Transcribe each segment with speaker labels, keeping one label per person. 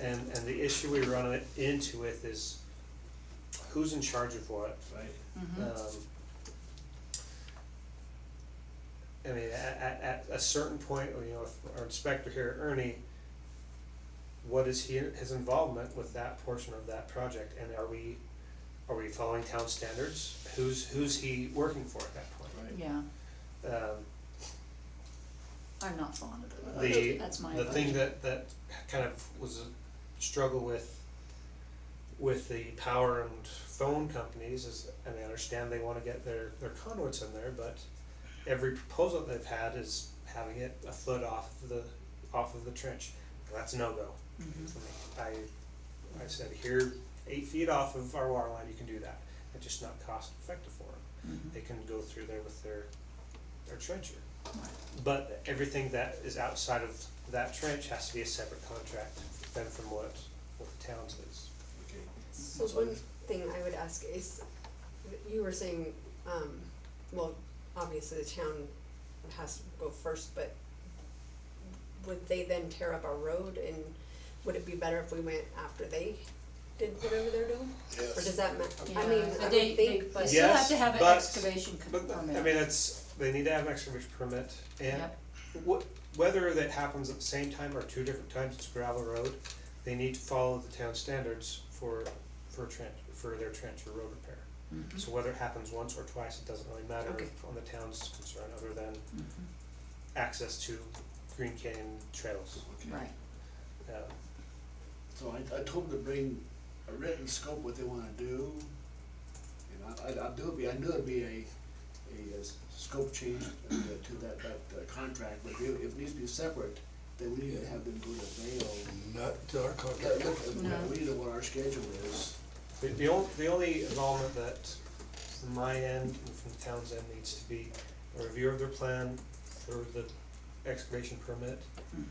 Speaker 1: And, and the issue we run it- into with is who's in charge of what?
Speaker 2: right?
Speaker 3: Mm-hmm.
Speaker 1: Um, I mean, at, at, at a certain point, you know, if our inspector here, Ernie, what is he, his involvement with that portion of that project, and are we, are we following town standards? Who's, who's he working for at that point?
Speaker 2: Right.
Speaker 3: Yeah,
Speaker 1: Um,
Speaker 3: I'm not fond of
Speaker 1: The-
Speaker 3: it, that's my
Speaker 1: the
Speaker 3: opinion.
Speaker 1: thing that, that kind of was a struggle with, with the power and phone companies is, and I understand they wanna get their, their conduits in there, but every proposal they've had is having it a foot off of the, off of the trench. That's no-go
Speaker 3: Mhm.
Speaker 1: for me. I, I said, here, eight feet off of our water line, you can do that. It's just not cost effective for them
Speaker 3: Mhm.
Speaker 1: they can go through there with their, their trencher.
Speaker 3: Right.
Speaker 1: But everything that is outside of that trench has to be a separate contract than from what, what the town's is.
Speaker 2: Okay.
Speaker 4: So one thing I would ask is, you were saying, um, well, obviously the town has to go first, but would they then tear up our road and would it be better if we went after they did whatever they're doing? Or does that ma- I mean,
Speaker 3: Yeah,
Speaker 4: I
Speaker 3: but
Speaker 4: would
Speaker 3: they, they,
Speaker 4: think.
Speaker 3: they still have
Speaker 1: Yes,
Speaker 3: to have an
Speaker 1: but-
Speaker 3: excavation con-
Speaker 1: But,
Speaker 3: permit.
Speaker 1: I mean, it's, they need to have an excavation permit and
Speaker 3: Yep.
Speaker 1: wh- whether that happens at the same time or two different times, it's gravel road, they need to follow the town standards for, for trench, for their trench or road repair.
Speaker 3: Mhm,
Speaker 1: So whether it happens once or twice, it doesn't really matter
Speaker 4: Okay.
Speaker 1: on the town's concern, other than
Speaker 3: mhm.
Speaker 1: access to Green Canyon trails.
Speaker 2: Okay.
Speaker 3: Right,
Speaker 1: Uh,
Speaker 2: So I, I told them to bring a written scope, what they wanna do. And I, I, I knew it'd be, I knew it'd be a, a uh, s- scope change uh, to that, that uh, contract, but if, if it needs to be separate, then we need to have them go to Vail.
Speaker 5: Not to our
Speaker 2: Let-
Speaker 5: contract.
Speaker 2: let them-
Speaker 3: No.
Speaker 2: We need to know what our schedule is.
Speaker 1: The, the only, the only involvement that from my end and from the town's end needs to be a review of their plan for the excavation permit
Speaker 3: mhm.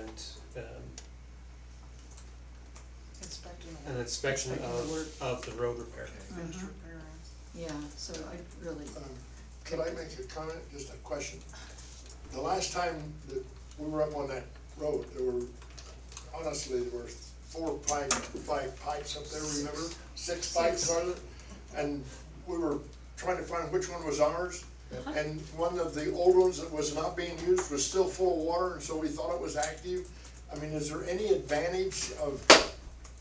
Speaker 1: and, um,
Speaker 6: Inspecting
Speaker 1: an inspection
Speaker 3: Inspecting the
Speaker 1: of,
Speaker 3: work.
Speaker 1: of the road repair.
Speaker 6: finished
Speaker 3: Mhm.
Speaker 6: repair.
Speaker 3: Yeah, so I really,
Speaker 1: Uh,
Speaker 5: Um, Could I make a comment, just a question? The last time that we were up on that road, there were, honestly, there were four pipe, five pipes up there, remember? Six pipes, are there? And we were trying to find which one was ours. And one of the old ones that was not being used was still full of water, and so we thought it was active. I mean, is there any advantage of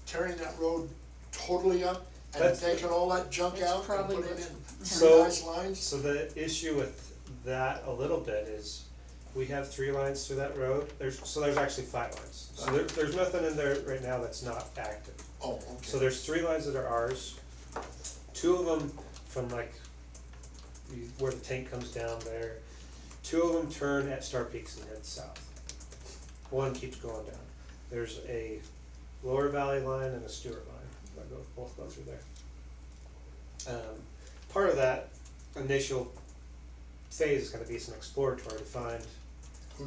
Speaker 5: tearing that road totally up and
Speaker 1: That's-
Speaker 5: taking all that junk
Speaker 3: That's
Speaker 5: out and
Speaker 3: probably
Speaker 5: putting in
Speaker 3: what-
Speaker 5: three
Speaker 1: So-
Speaker 5: nice lines?
Speaker 1: So the issue with that a little bit is, we have three lines through that road, there's, so there's actually five lines. So there, there's nothing in there right now that's not active.
Speaker 5: Oh,
Speaker 1: So
Speaker 5: okay.
Speaker 1: there's three lines that are ours. Two of them from like the- where the tank comes down there. Two of them turn at Star Peaks and head south. One keeps going down. There's a Lower Valley line and a Stewart line that go, both go through there. Um, part of that initial phase is gonna be some exploratory to find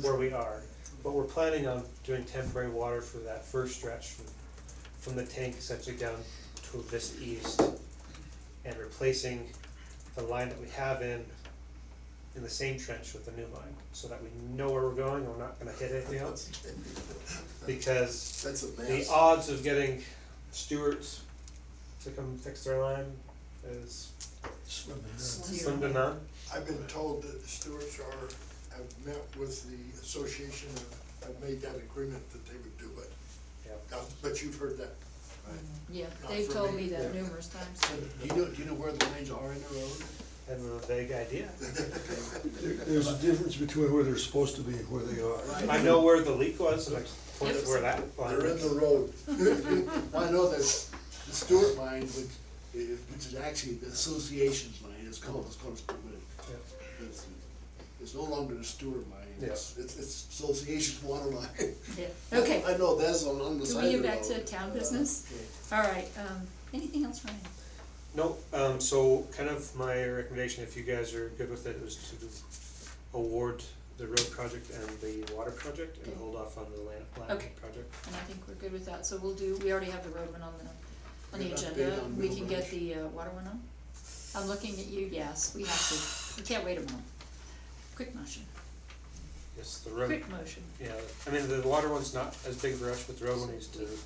Speaker 1: where we are. But we're planning on doing temporary water for that first stretch from, from the tank essentially down to Vista East and replacing the line that we have in, in the same trench with the new line, so that we know where we're going, and we're not gonna hit anything else. Because
Speaker 5: That's a
Speaker 1: the
Speaker 5: mess.
Speaker 1: odds of getting Stewart's to come fix their line is slim to none.
Speaker 5: I've been told that the Stewarts are, have met with the association and have made that agreement that they would do it.
Speaker 1: Yep.
Speaker 5: Now, But you've heard that.
Speaker 3: yeah,
Speaker 5: Not
Speaker 3: they've
Speaker 5: for
Speaker 3: told
Speaker 5: me,
Speaker 3: me that
Speaker 5: yeah.
Speaker 3: numerous times.
Speaker 2: So Do you know, do you know where the lines are in the road?
Speaker 1: I have a vague idea.
Speaker 7: There- There's a difference between where they're supposed to be and where they are.
Speaker 1: I know where the leak was, and I pointed where that line
Speaker 5: They're in
Speaker 1: is.
Speaker 5: the road.
Speaker 2: Well, I know that the Stewart line, which, i- which is actually the association's line, it's called, it's called, but
Speaker 1: Yeah.
Speaker 2: it's, it's no longer the Stewart line, it's, it's, it's association's water line.
Speaker 3: Yeah. Okay,
Speaker 2: I know that's on, on the
Speaker 3: can
Speaker 2: side
Speaker 3: we
Speaker 2: of the
Speaker 3: get
Speaker 2: road.
Speaker 3: back to town business?
Speaker 2: Okay.
Speaker 3: All right, um, anything else, Ryan?
Speaker 1: No, um, so kind of my recommendation, if you guys are good with it, is to award the road project and the water project and
Speaker 3: Okay.
Speaker 1: hold off on the land, land
Speaker 3: Okay.
Speaker 1: project.
Speaker 3: And I think we're good with that, so we'll do, we already have the road one on the, on the
Speaker 2: Good update
Speaker 3: agenda,
Speaker 2: on
Speaker 3: we
Speaker 2: Middle
Speaker 3: can get
Speaker 2: Branch.
Speaker 3: the uh, water one on? I'm looking at you, yes, we have to, we can't wait a moment. Quick motion,
Speaker 1: Yes, the road,
Speaker 3: quick motion.
Speaker 1: yeah, I mean, the water one's not as big of a rush, but the road one needs to